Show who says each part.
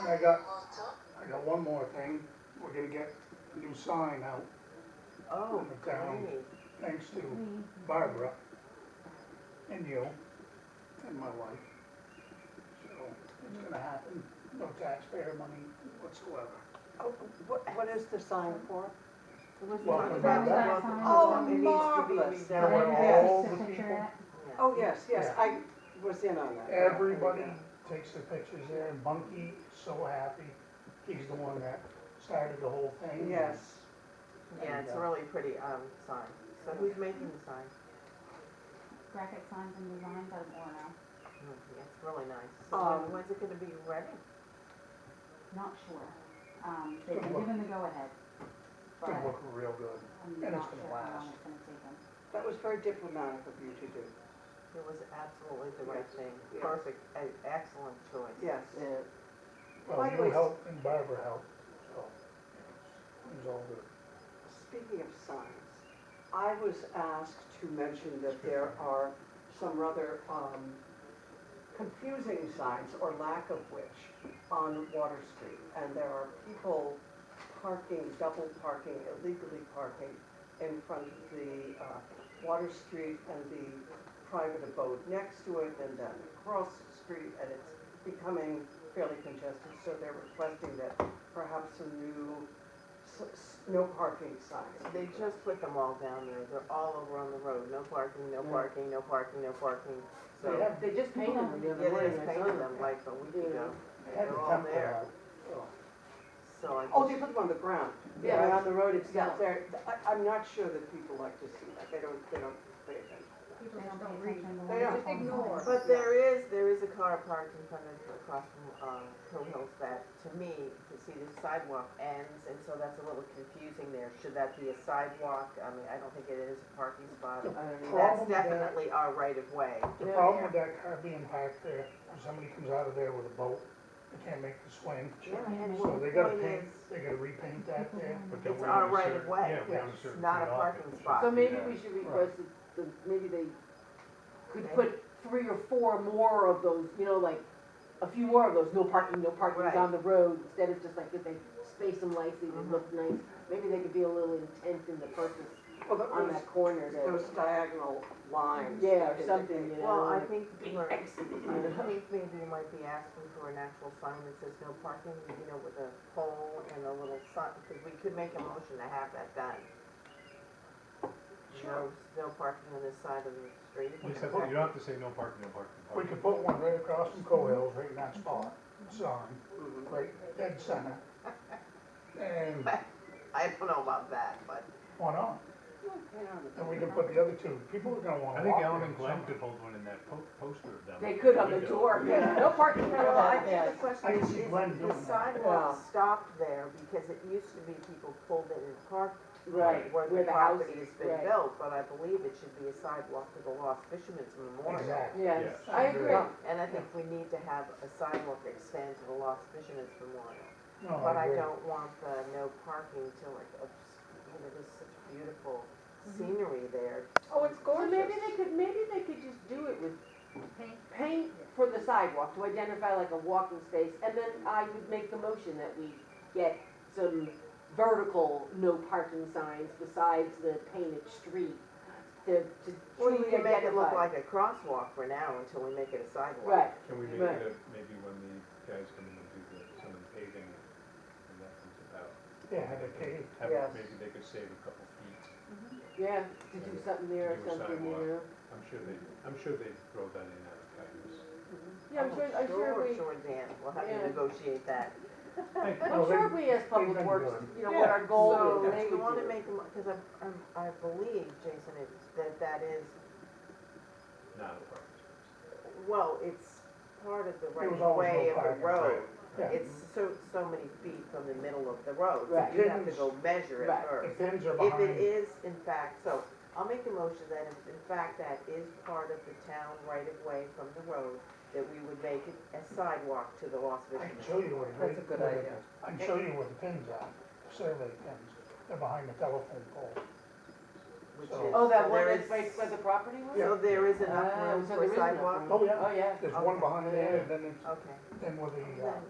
Speaker 1: And I got, I got one more thing, we're gonna get a new sign out,
Speaker 2: Oh, great.
Speaker 1: thanks to Barbara and you and my wife. So it's gonna happen, no taxpayer money whatsoever.
Speaker 2: Oh, what, what is the sign for?
Speaker 1: Welcome
Speaker 3: back.
Speaker 2: Welcome.
Speaker 3: Oh,
Speaker 2: Oh, marvelous.
Speaker 3: Yeah, when
Speaker 2: Yes.
Speaker 1: all the people,
Speaker 2: Oh, yes, yes,
Speaker 1: Yeah.
Speaker 2: I was in on that.
Speaker 1: everybody takes their pictures there and Bunky is so happy. He's the one that started the whole thing.
Speaker 2: Yes.
Speaker 3: Yeah, it's a really pretty, um, sign. So who's making the sign?
Speaker 4: graphic signs and design by Warner.
Speaker 3: Mm, It's really nice. So when-
Speaker 2: Um,
Speaker 3: when's it gonna be ready?
Speaker 4: Not sure. Um, they've been given the go-ahead,
Speaker 1: It's
Speaker 4: but
Speaker 1: gonna look real good.
Speaker 4: I'm
Speaker 1: And it's
Speaker 4: not
Speaker 1: gonna
Speaker 4: sure how
Speaker 1: last.
Speaker 4: long it's gonna take them.
Speaker 2: That was very diplomatic of you to do.
Speaker 3: It was absolutely the right thing.
Speaker 2: Yeah.
Speaker 3: Perfect, e- excellent choice.
Speaker 2: Yes.
Speaker 3: uh,
Speaker 1: Well,
Speaker 2: By the way,
Speaker 1: you helped and Barbara helped, so it was all good.
Speaker 2: Speaking of signs, I was asked to mention that there are some rather um, confusing signs, or lack of which, on Water Street. And there are people parking, double parking, illegally parking in front of the uh, Water Street and the private abode next to it, and then across the street, and it's becoming fairly congested. So they're requesting that perhaps some new S- s- No parking signs.
Speaker 3: They just put them all down there. They're all over on the road. No parking, no
Speaker 2: Yeah.
Speaker 3: parking, no parking, no parking. So,
Speaker 1: They
Speaker 3: yeah,
Speaker 1: have,
Speaker 5: They just painted them the
Speaker 3: they
Speaker 5: other day.
Speaker 3: just
Speaker 5: I saw
Speaker 3: painted
Speaker 5: them.
Speaker 3: them like a week ago.
Speaker 1: they had
Speaker 3: They're
Speaker 1: the
Speaker 3: all
Speaker 1: temple
Speaker 3: there.
Speaker 1: out.
Speaker 3: So I
Speaker 2: Oh, they
Speaker 3: just-
Speaker 2: put them on the ground.
Speaker 5: Yeah.
Speaker 2: I mean, on the road, it's
Speaker 5: Yeah.
Speaker 2: not there. I, I'm not sure that people like to see that. They don't, they don't pay attention.
Speaker 4: They don't pay attention to
Speaker 2: They
Speaker 4: the
Speaker 2: don't.
Speaker 4: phone
Speaker 5: ignore.
Speaker 4: calls.
Speaker 3: But there is, there is a car parked in front of, across from, um, Hill Hills that, to me, to see the sidewalk ends, and so that's a little confusing there. Should that be a sidewalk? I mean, I don't think it is a parking spot.
Speaker 1: The
Speaker 5: I don't know.
Speaker 1: problem
Speaker 3: That's
Speaker 1: with that-
Speaker 3: definitely our right of way.
Speaker 1: The problem with that car being parked there, when somebody comes out of there with a boat, they can't make the swing.
Speaker 3: And
Speaker 1: So
Speaker 3: the
Speaker 1: they gotta
Speaker 3: point
Speaker 1: paint,
Speaker 3: is,
Speaker 1: they gotta repaint that there.
Speaker 6: But they're
Speaker 3: It's
Speaker 6: within
Speaker 3: our
Speaker 6: a
Speaker 3: right of
Speaker 6: certain-
Speaker 3: way,
Speaker 6: yeah, within a certain
Speaker 3: not a
Speaker 6: feet off
Speaker 3: parking
Speaker 6: it.
Speaker 3: spot.
Speaker 5: So maybe we should request that, the- maybe they could put three or four more of those, you know, like, a few more of those, no parking, no parking
Speaker 3: Right. Mm-hmm.
Speaker 5: down the road, instead of just like, if they space them nicely, they look nice. Maybe they could be a little intense in the purpose
Speaker 2: Well, that
Speaker 5: on
Speaker 2: was
Speaker 5: that corner
Speaker 2: those
Speaker 5: there.
Speaker 2: diagonal lines. Mm-hmm.
Speaker 5: Yeah,
Speaker 2: that
Speaker 5: or something,
Speaker 2: indicate-
Speaker 5: you
Speaker 3: Well, I
Speaker 5: know.
Speaker 3: think we're, I think maybe we might be asking for an actual sign that says no parking, you know, with a pole and a little sign, because we could make a motion to have that done. No, no parking on this side of the street.
Speaker 6: Lisa, you don't have to say no parking, no parking, no
Speaker 1: We
Speaker 6: parking.
Speaker 1: could put one right across from Cohills, right in
Speaker 3: Mm-hmm.
Speaker 1: that spot, sign,
Speaker 2: Mhm.
Speaker 1: right dead center. And,
Speaker 3: I don't know about that, but
Speaker 1: why not?
Speaker 2: Hang on a minute.
Speaker 1: And we can put the other two, people are gonna wanna walk
Speaker 6: I think
Speaker 1: there.
Speaker 6: Alan and Glenn
Speaker 1: somehow.
Speaker 6: could hold one in that po- poster of them.
Speaker 5: They could on the
Speaker 6: window.
Speaker 5: door,
Speaker 2: Yeah.
Speaker 5: no parking.
Speaker 3: Well, I think
Speaker 2: Yes.
Speaker 3: the
Speaker 1: I can
Speaker 3: question is,
Speaker 1: see
Speaker 3: is
Speaker 1: Glenn doing
Speaker 3: the
Speaker 1: that.
Speaker 3: sidewalk
Speaker 2: Yeah.
Speaker 3: stopped there because it used to be people pulled in and parked
Speaker 5: Right,
Speaker 3: where
Speaker 5: where
Speaker 3: the
Speaker 5: the house
Speaker 3: property has
Speaker 5: is,
Speaker 3: been
Speaker 5: right.
Speaker 3: built, but I believe it should be a sidewalk to the Lost Fisherman's Memorial.
Speaker 1: Exactly.
Speaker 5: Yes,
Speaker 6: Yes.
Speaker 5: I agree.
Speaker 3: And I think we need to have a sidewalk extend to the Lost Fisherman's Memorial.
Speaker 1: No,
Speaker 3: But Oh, I
Speaker 1: agree.
Speaker 3: don't want the no parking to like, obs- you know, there's such beautiful
Speaker 5: Mm-hmm.
Speaker 3: scenery there.
Speaker 2: Oh, it's
Speaker 5: Or
Speaker 2: gorgeous.
Speaker 5: maybe they could, maybe they could just do it with paint for the sidewalk to identify like a walking space, and then I would make the motion that we get some vertical no parking signs besides the painted street to, to
Speaker 3: Or you
Speaker 5: truly
Speaker 3: can make it look
Speaker 5: identify.
Speaker 3: like a crosswalk for now until we make it a sidewalk.
Speaker 5: Right,
Speaker 6: Can we make
Speaker 5: Right.
Speaker 6: it, a- maybe when the guys come in and do the, some of the paving, and that comes about?
Speaker 1: Yeah, have it paved.
Speaker 6: Have-
Speaker 2: Yes.
Speaker 6: Maybe they could save a couple feet.
Speaker 5: yeah, to do something there or
Speaker 6: To do a
Speaker 5: something, you
Speaker 6: sidewalk.
Speaker 5: know?
Speaker 6: I'm sure they, I'm sure they throw that in out of kindness.
Speaker 5: Yeah, I'm sure, I'm sure we,
Speaker 3: Sure, Dan, we'll have
Speaker 5: Yeah.
Speaker 3: to negotiate that.
Speaker 5: I'm sure we as
Speaker 1: they've
Speaker 5: public
Speaker 1: been
Speaker 5: works,
Speaker 1: good.
Speaker 5: you know, what our goal
Speaker 3: So,
Speaker 5: is, and they
Speaker 3: do you
Speaker 5: would
Speaker 3: wanna
Speaker 5: do it.
Speaker 3: make, because I, I'm- I believe, Jason, it's, that that is,
Speaker 6: Not a parking space.
Speaker 3: well, it's part of the right
Speaker 1: was always
Speaker 3: way
Speaker 1: no
Speaker 3: of
Speaker 1: parking,
Speaker 3: the road.
Speaker 1: Yeah.
Speaker 3: It's so, so many feet from the middle of the road, so
Speaker 5: Right.
Speaker 3: you have to go measure it
Speaker 5: Right.
Speaker 1: The
Speaker 3: first.
Speaker 1: pins are
Speaker 3: If
Speaker 1: behind.
Speaker 3: it is in fact, so, I'll make a motion that if in fact that is part of the town right of way from the road, that we would make it a sidewalk to the Lost
Speaker 1: I can
Speaker 3: Fisherman's.
Speaker 1: show you where. the-
Speaker 2: That's a good
Speaker 1: where the-
Speaker 2: idea.
Speaker 1: I can show you where the pins are, survey pins. They're behind the telephone pole.
Speaker 3: which
Speaker 1: So-
Speaker 3: is-
Speaker 5: Oh, that
Speaker 3: so
Speaker 5: one
Speaker 3: there
Speaker 5: that's
Speaker 3: is-
Speaker 5: by, by the property was?
Speaker 3: So there is
Speaker 5: Ah,
Speaker 3: enough room
Speaker 5: so
Speaker 3: for
Speaker 5: there is enough
Speaker 3: sidewalk?
Speaker 5: room.
Speaker 1: Oh, yeah.
Speaker 5: Oh, yeah.
Speaker 1: There's
Speaker 3: Okay.
Speaker 1: one behind there, and then, it's-
Speaker 3: Okay.
Speaker 1: then where the, uh,
Speaker 3: Then